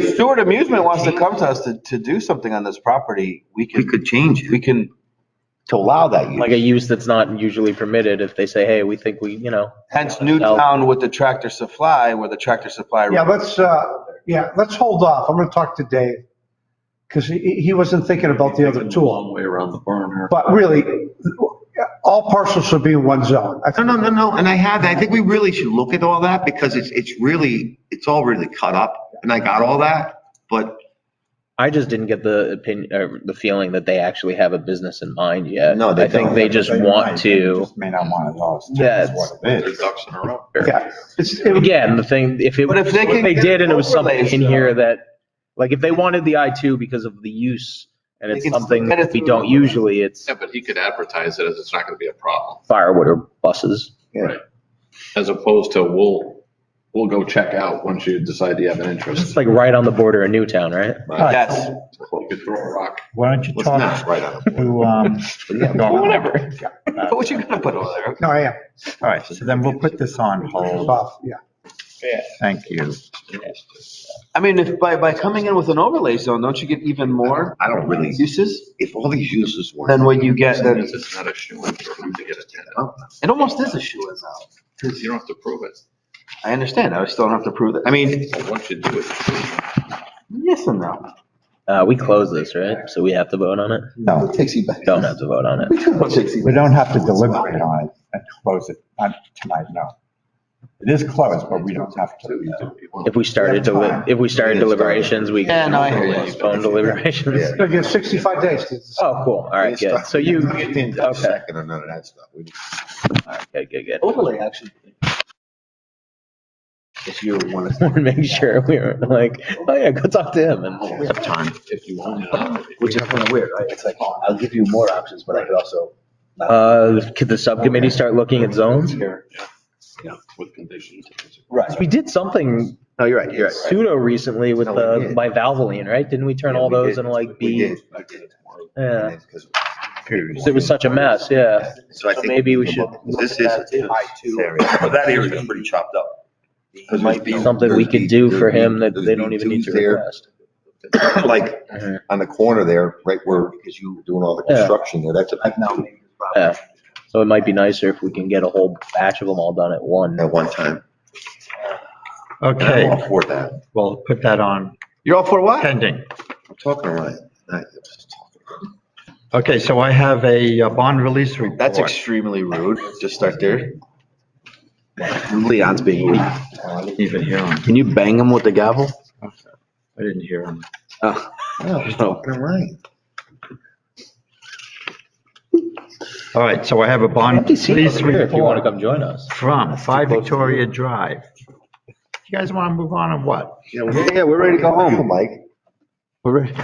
If Stewart Amusement wants to come to us to, to do something on this property, we We can, could change it. we can, to allow that like a use. use that's not usually permitted if they say, hey, we think we, you know. hence Newtown with the tractor supply, where the tractor supply. Yeah, let's, uh, yeah, let's hold off. I'm going to talk to Dave because he, he wasn't thinking about the other two. Long way around the barn here. But really, all parcels should be in one zone. I No, think no, no, no. And I had, I think we really should look at all that because it's, it's really, it's all really cut up. And I got all that, but I just didn't get the opinion or the feeling that they actually have a business in mind yet. No, they I think don't. they just want to. May not want it all. Yeah, That's what it is. there's ducks in a row. Yeah, it's, it would- Again, the thing, if it, But if if they can they get did and it was something overlays, in though. here that, like if they wanted the I two because of the use and They it's can still something get it that we through don't the- usually, it's Yeah, but he could advertise it as it's not going to be a problem, firewood or buses. as opposed to we'll, we'll go check out once you decide you have an It's interest. like right on the border of Newtown, right? Yes, You could throw a rock. Why don't you Let's talk not right on it. to, um, Donna? whatever. But what you gonna put over there? no, I am. All right, so then we'll put this on It's hold. off, yeah. Thank you. I mean, if by, by coming in with an overlay zone, don't you get even more I don't really, uses if all these uses were. than what you get? Then It's it's not a shoe in for him to get a tenant. It almost is a shoe is out. You don't have to prove it. I understand. I still don't have to prove that. I mean, But once you do it, yes and no. Uh, we close this, right? So we have to vote on it? No, Don't have to vote on it. we don't have to deliberate on it and close it, not tonight, no. It is closed, but we don't have to. uh, If we started to, if we started deliberations, we. Yeah, no, I hear you. Postpone deliberations. So you have 65 days to decide. Oh, cool. All right, good. So you, okay. All Second and none of that Oh, stuff. We- right, good, good, good. Overlay actually. If you want to. Wanted to make sure we were like, oh yeah, go talk to him We and. have time. If you own Uh, it. Which is kind of weird, right? It's like, I'll give you more options, but I could also. Uh, could the subcommittee start looking at zones? with conditions. Right. We did something No, you're right, you're right. pseudo recently with No, we the did. bivalveline, right? Didn't we turn all Yeah, we those did. into like We B? did. We did. Yeah. It is 'cause- 'Cause It was such a mess, yeah. So I So think. maybe we should This is. But that area is pretty chopped up. It might be Something we could do for him that they don't even need to request. Like Mhm. on the corner there, right where, because you were doing all the Yeah. construction there, that's a big two Yeah. So it might be nicer if we can get a whole batch of them all done at one. at one time. And I'm Okay, all for that. we'll put that on You're all for what? pending. I'm talking right. Not- I'm just talking. Okay, so I have a uh, bond release report. That's extremely rude. Just start there. Leon's being rude. I didn't even hear him. Can you bang him with the gavel? I didn't hear him. Oh. No, he's Oh. talking right. All right, so I have a bond Please, release if you want to report come join us. from Five Victoria Drive. You guys want to move on or what? Yeah, yeah, we're ready to go home. Mike. We're ready.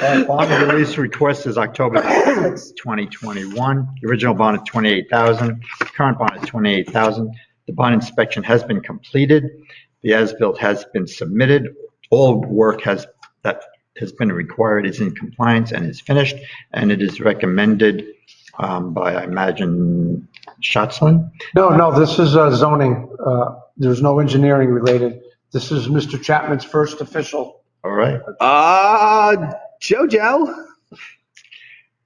Uh, Bond release request is October 6th, 2021. The original bond is 28,000, current bond is 28,000. The bond inspection has been completed. The as-built has been submitted. All work has, that has been required is in compliance and is finished, and it is recommended um, by, I imagine, Schatzlin? No, no, this is uh, zoning. uh, There's no engineering related. This is Mr. Chapman's first official. All right. Uh, Jojo.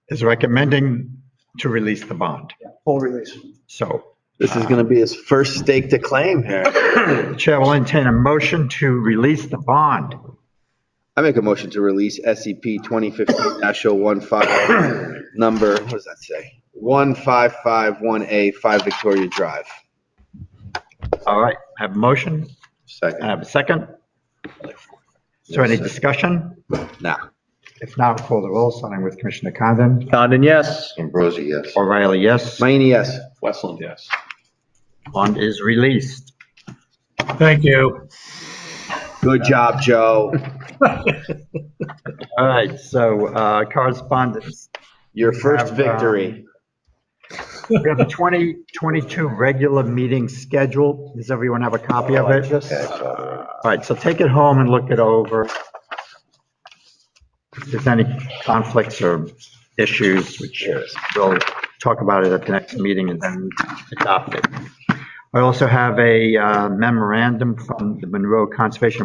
Is recommending to release the bond. Full release. So This is gonna be his first stake to claim here. Chair will entertain a motion to release the bond. I make a motion to release SCP twenty fifteen dash oh one five, number, what does that say? One five five one A, five Victoria Drive. All right, have a motion, I Second. have a second. Is there any discussion? Now. If not, call the roll, starting with Commissioner Condon. Condon, yes. Ambrosi, yes. O'Reilly, yes. Mayini, yes. Westland, yes. Bond is released. Thank you. Good job, Joe. All right, so uh, correspondence. Your first Have, um, victory. We have a 2022 regular meeting schedule. Does everyone have a copy of it? All right, so take it home and look it over. If there's any conflicts or issues, which we'll talk about it at the next meeting and then adopt it. I also have a uh, memorandum from the Monroe Conservation